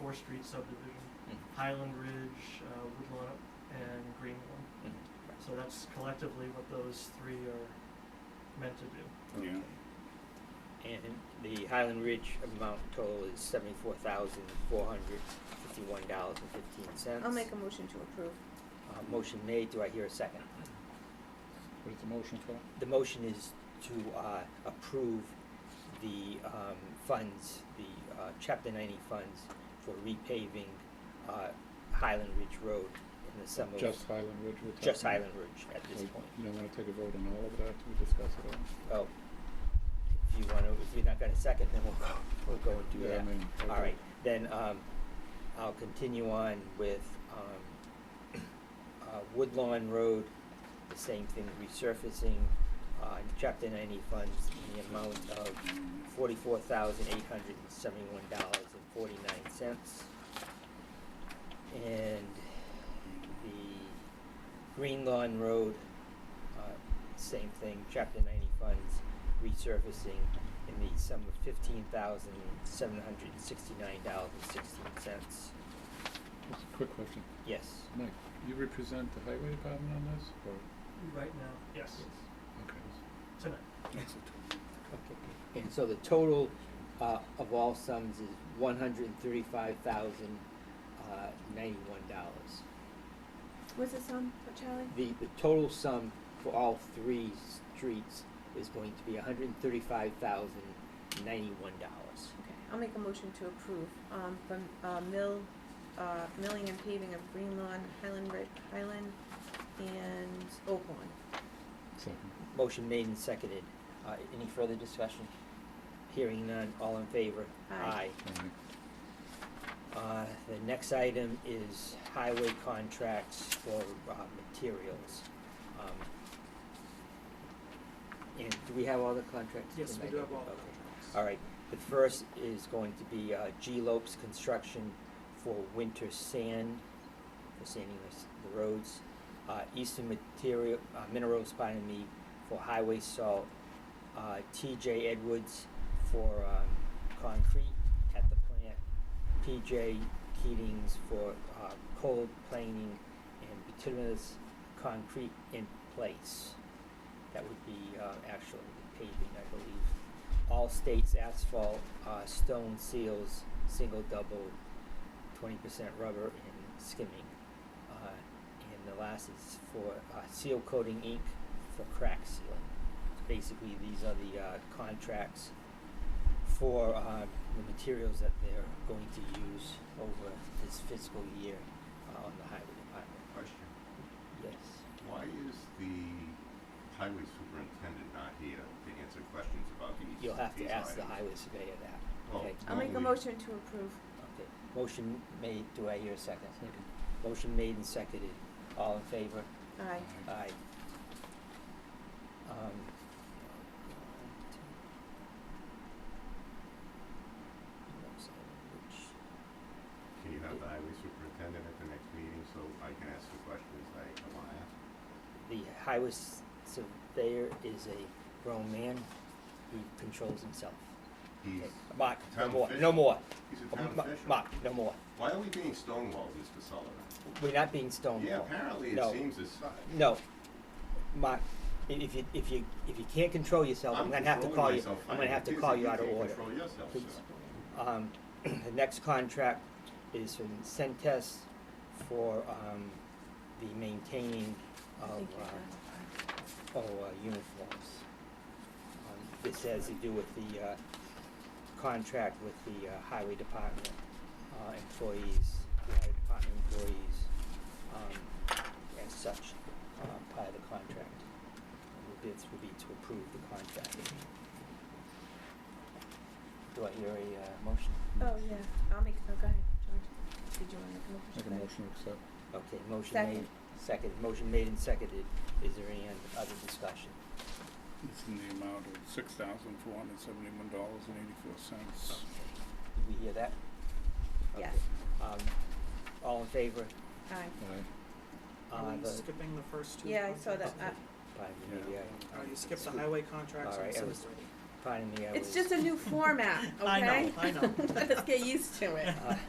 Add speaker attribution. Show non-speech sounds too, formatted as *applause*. Speaker 1: Fourth Street subdivision,
Speaker 2: Mhm.
Speaker 1: Highland Ridge, uh, Woodlawn, and Greenlawn.
Speaker 2: Mhm.
Speaker 1: So that's collectively what those three are meant to do.
Speaker 2: Okay.
Speaker 3: Yeah.
Speaker 2: And the Highland Ridge amount total is seventy-four thousand, four hundred fifty-one dollars and fifteen cents.
Speaker 4: I'll make a motion to approve.
Speaker 2: Uh, motion made, do I hear a second?
Speaker 3: What is the motion for?
Speaker 2: The motion is to, uh, approve the, um, funds, the, uh, chapter ninety funds for repaving, uh, Highland Ridge Road in the summer. of-
Speaker 3: Just Highland Ridge we're talking?
Speaker 2: Just
Speaker 3: about?
Speaker 2: Highland Ridge at this
Speaker 3: So
Speaker 2: point. Oh,
Speaker 3: You don't wanna take a vote on all of it after we discuss it all?
Speaker 2: Well, if you wanna, if you're not gonna second, then we'll go, we'll go and do that.
Speaker 3: Yeah, I mean, okay.
Speaker 2: All right, then, um, I'll continue on with, um, uh, Woodlawn Road, the same thing, resurfacing, uh, chapter ninety funds in the amount of forty-four thousand eight hundred and seventy-one dollars and forty-nine cents. And the Green Lawn Road, uh, same thing, chapter ninety funds, resurfacing in the sum of fifteen thousand seven hundred and sixty-nine dollars and sixteen cents.
Speaker 3: Just a quick question.
Speaker 2: Yes.
Speaker 3: Mike, you represent the highway department on this, or?
Speaker 1: Right now, yes,
Speaker 3: Okay.
Speaker 1: tonight.
Speaker 2: Okay, and so the total, uh, of all sums is one hundred and thirty-five thousand, uh, ninety-one dollars.
Speaker 4: What's this on, Charlie?
Speaker 2: The, the total sum for all three streets is going to be hundred and thirty-five thousand, ninety-one dollars.
Speaker 4: Okay, I'll make a motion to approve, um, from, uh, mill, uh, milling and paving of Green Lawn, Highland Ri- Highland, and Oak Lawn.
Speaker 3: Second.
Speaker 2: Motion made and seconded. Uh, any further discussion? Hearing none, all in favor?
Speaker 4: Aye.
Speaker 3: All right.
Speaker 2: Uh, the next item is highway contracts for, uh, materials. Um, And do we have all the contracts?
Speaker 1: Yes, we do have all the
Speaker 2: Okay.
Speaker 1: contracts.
Speaker 2: All right, the first is going to be, uh, G Lopes Construction for winter sand, for sanding the, s- the roads. Uh, Eastern Material, uh, Minerals, pardon me, for highway salt. Uh, TJ Edwards for, um, concrete at the plant. PJ Keatings for, uh, cold planing and bituminous concrete in place. That would be, uh, actual paving, I believe. All states asphalt, uh, stone seals, single, double, twenty percent rubber and skimming. Uh, and the last is for, uh, seal coating ink for crack sealing. Basically, these are the, uh, contracts for, uh, the materials that they're going to use over this fiscal year, uh, on the highway department.
Speaker 5: Question,
Speaker 2: Yes.
Speaker 5: why is the highway superintendent not here to answer questions about these?
Speaker 2: You'll have to
Speaker 5: these
Speaker 2: ask the
Speaker 5: items?
Speaker 2: highway surveyor that,
Speaker 5: Oh.
Speaker 2: okay?
Speaker 4: I'll make a
Speaker 5: Lovely.
Speaker 4: motion to approve.
Speaker 2: Okay, motion made, do I hear a second?
Speaker 3: Second.
Speaker 2: Motion made and seconded, all in favor?
Speaker 4: Aye.
Speaker 2: Aye. Um.
Speaker 5: Can you have the highway superintendent at the next meeting so I can ask the questions I I wanna ask?
Speaker 2: The highway s- surveyor is a grown man who controls himself.
Speaker 5: He's,
Speaker 2: Okay, Mark, no
Speaker 5: Town
Speaker 2: more, no
Speaker 5: official.
Speaker 2: more.
Speaker 5: he's a
Speaker 2: Oh,
Speaker 5: town
Speaker 2: Ma-
Speaker 5: official.
Speaker 2: Mark, no more.
Speaker 5: Why are we being stonewalled, Mr. Sullivan?
Speaker 2: We're not being stonewalled.
Speaker 5: Yeah, apparently
Speaker 2: No.
Speaker 5: it seems as such.
Speaker 2: No, Mark, i- if you, if you, if you can't control yourself, I'm gonna have to
Speaker 5: controlling
Speaker 2: call you,
Speaker 5: myself
Speaker 2: I'm gonna
Speaker 5: fine.
Speaker 2: have to
Speaker 5: It is
Speaker 2: call
Speaker 5: that
Speaker 2: you out of
Speaker 5: can't
Speaker 2: order.
Speaker 5: Control yourself,
Speaker 2: Please.
Speaker 5: sir.
Speaker 2: Um, *clears throat* the next contract is from Centess for, um, the maintaining
Speaker 4: I
Speaker 2: of,
Speaker 4: think you
Speaker 2: um,
Speaker 4: got it.
Speaker 2: oh, uh, uniforms. Um, This has to do with the, uh, contract with the uh, highway department, uh, employees, the highway department employees, um, as such, uh, part of the contract. And The bids will be to approve the contract. Do I hear a, uh, motion?
Speaker 4: Oh, yeah, I'll make, oh, go ahead, George. Did you wanna make a motion?
Speaker 3: Make a motion to accept.
Speaker 2: Okay, motion made,
Speaker 4: Second.
Speaker 2: second, motion made and seconded, is there any other discussion?
Speaker 3: It's in the amount of six thousand four hundred seventy-one dollars and eighty-four cents.
Speaker 2: Did we hear that?
Speaker 4: Yes.
Speaker 2: Okay. Um, all in favor?
Speaker 4: Aye.
Speaker 3: Aye.
Speaker 2: Uh,
Speaker 1: Are we
Speaker 2: the-
Speaker 1: skipping the first two?
Speaker 4: Yeah, I saw that,
Speaker 1: contracts?
Speaker 4: uh,
Speaker 2: Pardon me,
Speaker 3: Yeah.
Speaker 2: I-
Speaker 1: Oh, you skipped the
Speaker 2: Scoop.
Speaker 1: highway contracts
Speaker 2: All
Speaker 1: and
Speaker 2: right, I was-
Speaker 1: cemetery.
Speaker 2: Pardon me, I was.
Speaker 4: *laughs* it's just a new format, okay? *laughs*
Speaker 1: I know, I know.
Speaker 4: Let's get used to it.
Speaker 2: Uh,